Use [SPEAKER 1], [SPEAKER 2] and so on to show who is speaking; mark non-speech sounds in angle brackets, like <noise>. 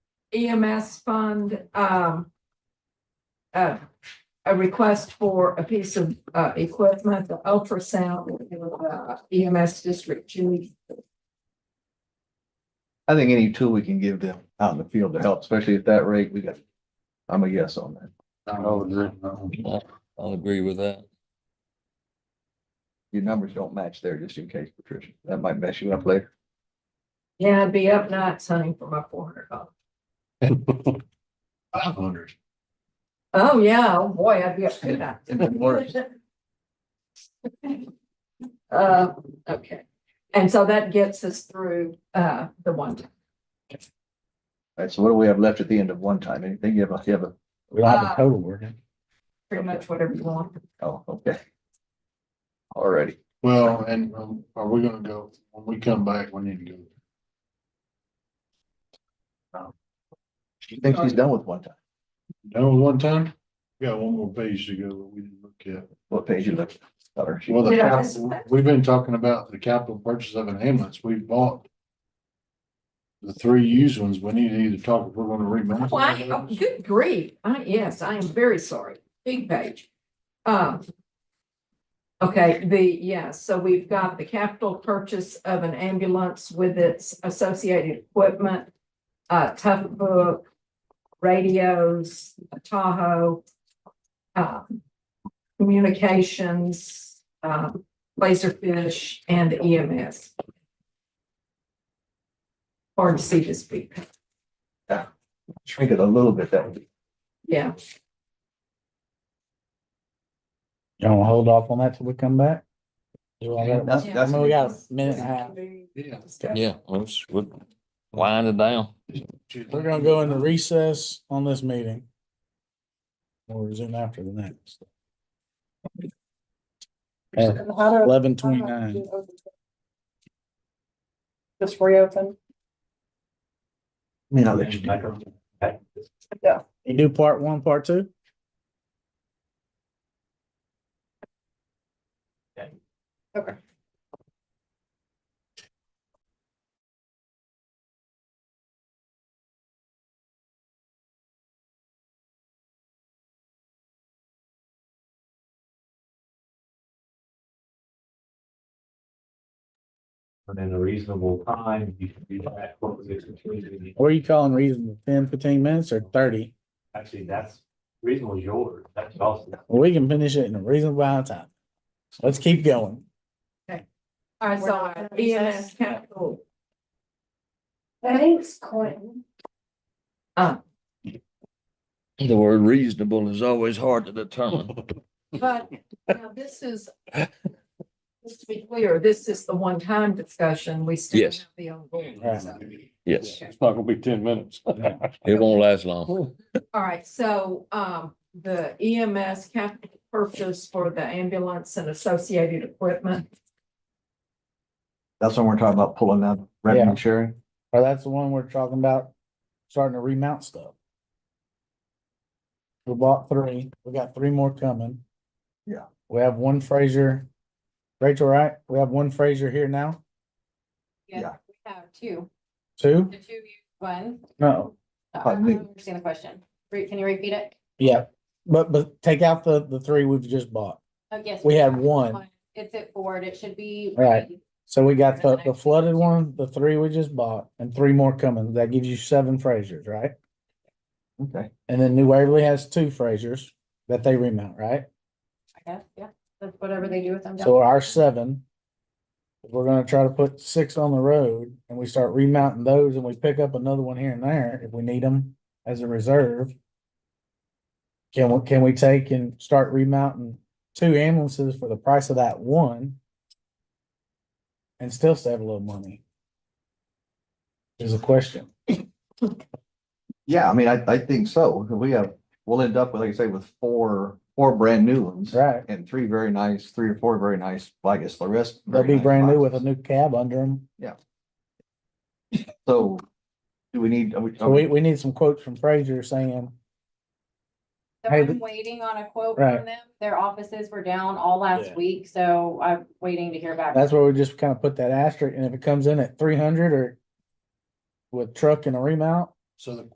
[SPEAKER 1] EMS E fund, um, uh, a request for a piece of, uh, equipment, the ultrasound, uh, EMS District Two.
[SPEAKER 2] I think any tool we can give them out in the field to help, especially at that rate, we got, I'm a yes on that.
[SPEAKER 3] Oh, no.
[SPEAKER 4] I'll I'll agree with that.
[SPEAKER 2] Your numbers don't match there, just in case, Patricia. That might mess you up later.
[SPEAKER 1] Yeah, I'd be up nights hunting for my four hundred dollars.
[SPEAKER 3] <laughs> Five hundred.
[SPEAKER 1] Oh, yeah, oh, boy, I'd be up to that.
[SPEAKER 3] It'd be worse.
[SPEAKER 1] <laughs> Uh, okay, and so that gets us through, uh, the one. time.
[SPEAKER 2] All right, so what do we have left at the end of one time? Anything you have, a- you have a,
[SPEAKER 3] We don't have a total, we're good.
[SPEAKER 1] pretty much whatever you want.
[SPEAKER 2] oh, okay. Alrighty,
[SPEAKER 3] Well, and um, are we gonna go, when we come back, we need to go.
[SPEAKER 2] she thinks she's done with one time.
[SPEAKER 3] Done with one time? We Got one more page to go that we didn't look at.
[SPEAKER 2] What page you left? Or she-
[SPEAKER 3] Well, the
[SPEAKER 1] Yeah.
[SPEAKER 3] capital, we've been talking about the capital purchase of an ambulance. We've bought. The three used ones. We need to either talk if we're gonna remount.
[SPEAKER 1] Well, I- oh, good grief. I, yes, I am very sorry. Big page. Um. Okay, the, yeah, so we've got the capital purchase of an ambulance with its associated equipment. Uh, tough book, radios, Tahoe. Uh, communications, uh, laserfish and E EMS. Hard to see this big picture.
[SPEAKER 2] Shrink it a little bit, that would be,
[SPEAKER 1] Yeah,
[SPEAKER 5] You wanna hold off on that till we come back? Do all that-
[SPEAKER 2] that's, that's.
[SPEAKER 5] I mean, we got a minute and a half.
[SPEAKER 3] Yeah.
[SPEAKER 4] Yeah, let's, we'll wind it down.
[SPEAKER 5] We're gonna go into recess on this meeting. We'll resume after the next. Eleven twenty-nine.
[SPEAKER 6] Just reopen.
[SPEAKER 2] I mean, I'll let you do it.
[SPEAKER 5] You do part one, part two?
[SPEAKER 7] within a reasonable time, you can do that, what was excluded,
[SPEAKER 5] What are you calling reasonable? Ten, fifteen minutes or thirty?
[SPEAKER 7] actually, that's reasonable is yours, that's also.
[SPEAKER 5] We can finish it in a reasonable amount of time. Let's keep going.
[SPEAKER 1] all right,
[SPEAKER 6] We're not
[SPEAKER 1] so
[SPEAKER 6] gonna
[SPEAKER 1] EMS
[SPEAKER 6] recess.
[SPEAKER 1] capital,
[SPEAKER 6] Thanks, Quentin.
[SPEAKER 1] Uh,
[SPEAKER 4] The word reasonable is always hard to determine.
[SPEAKER 1] but now this is, just to be clear, this is the one-time discussion, we still have
[SPEAKER 4] Yes.
[SPEAKER 1] the ongoing.
[SPEAKER 5] Right.
[SPEAKER 1] so.
[SPEAKER 4] <laughs> Yes,
[SPEAKER 3] not gonna be ten minutes.
[SPEAKER 4] it won't last long.
[SPEAKER 1] All right, so, um, the EMS capital purchase for the ambulance and associated equipment,
[SPEAKER 2] That's when we're talking about pulling out revenue sharing.
[SPEAKER 5] Or that's the one we're talking about, starting to remount stuff. We bought three, we got three more coming.
[SPEAKER 2] Yeah.
[SPEAKER 5] We have one Fraser, Rachel, right? We have one Fraser here now,
[SPEAKER 2] Yeah.
[SPEAKER 8] Yeah, we have two,
[SPEAKER 5] two?
[SPEAKER 8] the two you one.
[SPEAKER 5] No.
[SPEAKER 8] Uh,
[SPEAKER 2] I
[SPEAKER 8] I don't
[SPEAKER 2] think-
[SPEAKER 8] understand the question. Re- Can you repeat it?
[SPEAKER 5] Yeah, but, but take out the, the three we've just bought.
[SPEAKER 8] Oh, yes.
[SPEAKER 5] We had
[SPEAKER 8] have
[SPEAKER 5] one.
[SPEAKER 8] It's at Ford. It should be.
[SPEAKER 5] Right. So we got the,
[SPEAKER 8] That's
[SPEAKER 5] the
[SPEAKER 8] nice.
[SPEAKER 5] flooded one, the three we just bought, and three more coming. That gives you seven Frasers, right?
[SPEAKER 2] Okay.
[SPEAKER 5] And then New Waverly has two Frasers that they remount, right?
[SPEAKER 8] I guess, yeah. That's whatever they do with them. down
[SPEAKER 5] So
[SPEAKER 8] there.
[SPEAKER 5] our seven. if We're gonna try to put six on the road and we start remounting those and we pick up another one here and there if we need them as a reserve. Can we, can we take and start remounting two ambulances for the price of that one? And still save a little money? Is a question.
[SPEAKER 2] Yeah, I mean, I, I think so. We have, we'll end up with, like I say, with four, four brand new ones.
[SPEAKER 5] Right.
[SPEAKER 2] And three very nice, three or four very nice, I guess the rest.
[SPEAKER 5] They'll
[SPEAKER 2] very
[SPEAKER 5] be
[SPEAKER 2] nice
[SPEAKER 5] brand new with a
[SPEAKER 2] boxes.
[SPEAKER 5] new cab under them.
[SPEAKER 2] So do we need, are we,
[SPEAKER 5] So we, we need some quotes from Frazier saying,
[SPEAKER 8] So
[SPEAKER 5] hey,
[SPEAKER 8] I'm
[SPEAKER 5] th-
[SPEAKER 8] waiting on a quote
[SPEAKER 5] Right.
[SPEAKER 8] from them. Their offices were down all last
[SPEAKER 5] Yeah.
[SPEAKER 8] week, so I'm waiting to hear back.
[SPEAKER 5] That's where we just kind of put that asterisk, and if it comes in at three hundred or with truck and a remount,
[SPEAKER 3] So the